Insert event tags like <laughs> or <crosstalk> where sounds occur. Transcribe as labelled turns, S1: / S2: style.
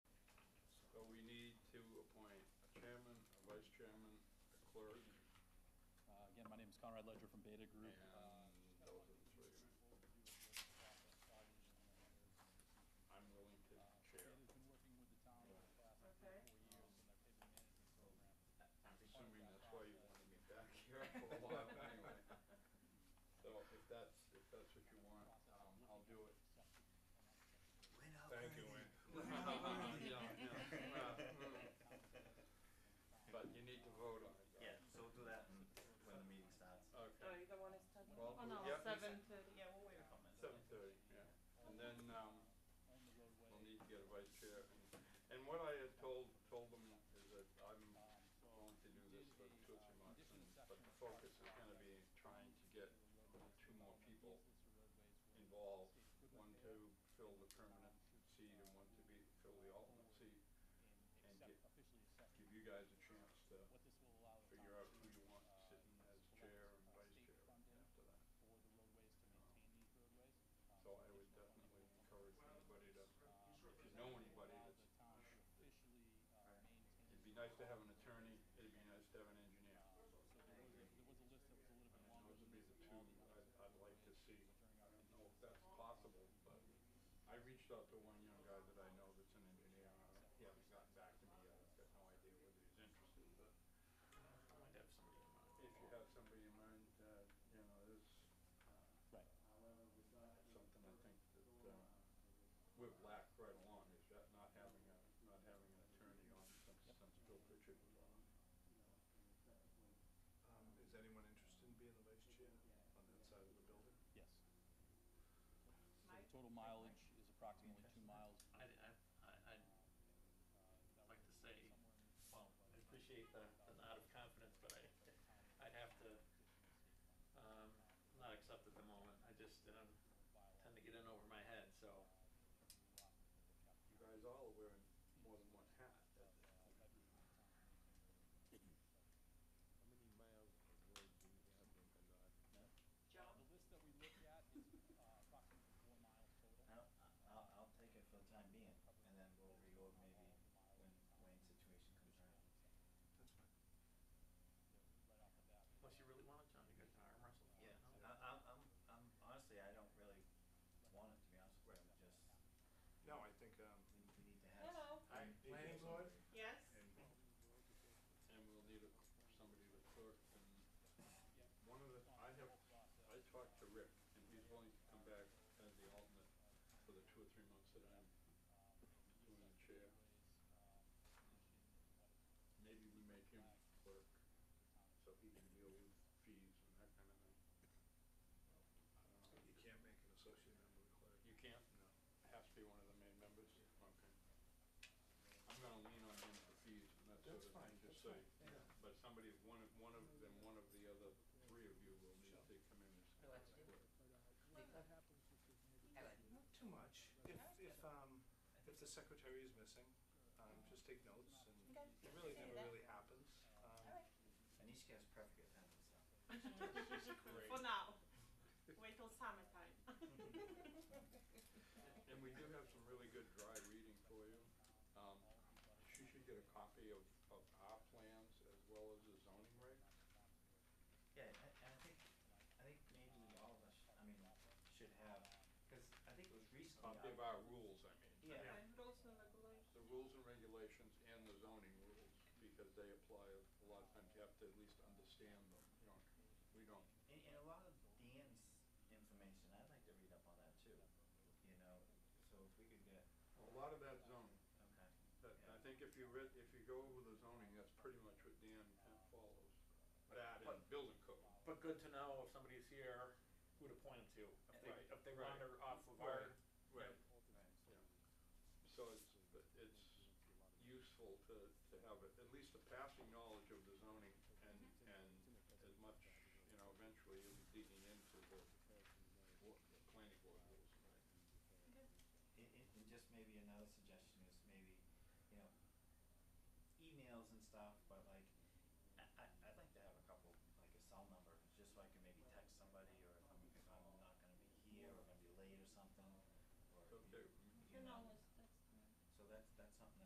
S1: chairman, a vice chairman, a clerk,
S2: Uh, Again, my name is Conrad Ledger from Beta Group. Uh,
S1: and those are the three, right? I'm willing to
S2: uh,
S1: chair.
S2: Beta's been working with the town over the past like, three, or four years in their pavement management program.
S1: I'm assuming that's why you wanted me back <laughs> here for a while anyway.
S3: Oh,
S1: So if that's, if that's what you want, um, I'll do it.
S4: Thank you,
S1: <laughs>
S5: <laughs>
S4: Wayne.
S1: Yeah, yeah. But you need to vote on it. though.
S5: Yeah, so we'll do that in- when the meeting starts.
S3: Oh,
S1: Okay.
S3: you don't want us to?
S1: Well,
S3: Oh, no,
S1: yeah.
S3: seven thirty.
S5: Yeah, we'll wait a couple minutes.
S1: Seven thirty, yeah. And then, um,
S2: On the roadway.
S1: we'll need to get a vice chair. And- And what I had told, told them is that I'm
S2: um, so
S1: going to do this for two or three months, and,
S2: condition
S1: but
S2: assessment
S1: the focus is gonna be trying to get two more people involved, one to fill the permanent seat and one to be, fill the alternate seat,
S2: and
S1: and get-
S2: accept, officially accept
S1: give you guys a chance to
S2: what this will allow the town
S1: figure out
S2: to,
S1: who you want
S2: uh,
S1: sitting as
S2: select,
S1: chair and
S2: uh,
S1: vice chair
S2: state funding
S1: after that.
S2: for the roadways to maintain these roadways. Um,
S1: So I would
S2: additional funding
S1: definitely
S2: will come
S1: encourage anybody to,
S2: Um,
S1: if you know anybody
S2: allow
S1: that's,
S2: the town to officially, uh, maintain.
S1: it'd be nice to have an attorney, it'd be nice to have an engineer.
S2: Um, So there was, a- there was a list that was a little bit longer
S1: Those
S2: than
S1: would be
S2: this
S1: the
S2: of
S1: two
S2: all the
S1: I'd, I'd
S2: others
S1: like to see.
S2: during
S1: I
S2: our
S1: don't know if that's possible, but I reached out to one young guy that I know that's an engineer, and I don't- he hasn't gotten back to me yet, I've got no idea whether he's interested, but
S5: I might have somebody in mind.
S1: if you have somebody in mind, uh, you know, there's, uh,
S2: Right.
S1: something I think that, uh, we've lacked right along, is that not having a, not having an attorney on since, since Bill Pritchard was on.
S4: Um, is anyone interested in being the vice chair on that side of the building?
S2: Yes. So the
S3: Mike?
S2: total mileage is approximately two miles.
S5: I, I, I, I'd like to say, well, I appreciate the, the nod of confidence, but I, I'd have to, um, not accept at the moment. I just, um, tend to get in over my head, so.
S1: You guys all are wearing more than one hat at this
S4: How many miles of road do you have in
S3: Joe?
S4: Gennard?
S2: The list that we look at is uh, approximately four miles total.
S5: I'll, I'll, I'll take it for the time being, and then we'll reorg maybe when Wayne's situation comes around.
S4: That's fine.
S2: Right off the bat.
S6: Unless you really want it, John, you guys can arm wrestle.
S5: Yeah, I, I'm, I'm, I'm, honestly, I don't really want it, to be honest with you, I'm just,
S4: No, I think, um,
S5: we, we need to have.
S3: Hello?
S4: I.
S6: Planning board?
S3: Yes?
S1: <laughs>
S4: And
S1: And we'll need a, somebody to clerk and one of the, I have, I talked to Rick and he's willing to come back as the alternate for the two or three months that I'm doing the chair. Maybe we make him clerk so he can deal with fees and that kind of thing. I don't know.
S4: you can't make an associate member of clerk.
S1: You can't?
S4: No.
S1: Has to be one of the main members? Okay. I'm gonna lean on him for fees and that sort
S4: That's
S1: of
S4: fine,
S1: thing, just
S4: that's
S1: so,
S4: fine, yeah.
S1: but somebody, one of, one of, then one of the other three of you will need to come in as
S6: Relax.
S1: clerk.
S4: Not too much. If, if, um, if the secretary is missing, um, just take notes and
S3: Okay.
S4: it really
S3: Can do that.
S4: never really happens. Um,
S3: Alright.
S5: Anishka has perfect attendance, so.
S3: For now. Wait till
S1: <laughs>
S3: summertime. <laughs>
S1: And we do have some really good dry reading for you. Um, she should get a copy of, of our plans as well as the zoning regs.
S5: Yeah, I, I think, I think maybe all of us, I mean, should have, cause I think it was recently.
S1: Copy Uh, of
S5: I-
S1: our rules, I mean.
S5: Yeah,
S3: And rules and regulations.
S1: The rules and regulations and the zoning rules, because they apply, a lot of times you have to at least understand them, you know, we don't.
S5: and, and a lot of Dan's information, I'd like to read up on that too, you know, so if we could get,
S1: A lot of that zoning,
S5: okay.
S1: that, I think if you read, if you go over the zoning, that's pretty much what Dan follows. That and building code.
S6: But good to know if somebody's here, who to point them to, if they,
S1: Right,
S6: if they
S1: right.
S6: wander off of our,
S1: Right.
S5: Right.
S1: So it's, but it's useful to, to have a- at least a passing knowledge of the zoning and,
S2: Mm-hmm.
S1: and as much, you know, eventually you'll be digging into the, what, the planning board rules, right?
S5: It, it, and just maybe another suggestion is maybe, you know, emails and stuff, but like, I, I, I'd like to have a couple, like a cell number, just so I can maybe text somebody, or if I'm, if I'm not gonna be here, or gonna be late or something, or.
S1: Okay, mm,
S5: you-
S3: You
S5: You
S3: know,
S5: know,
S3: it's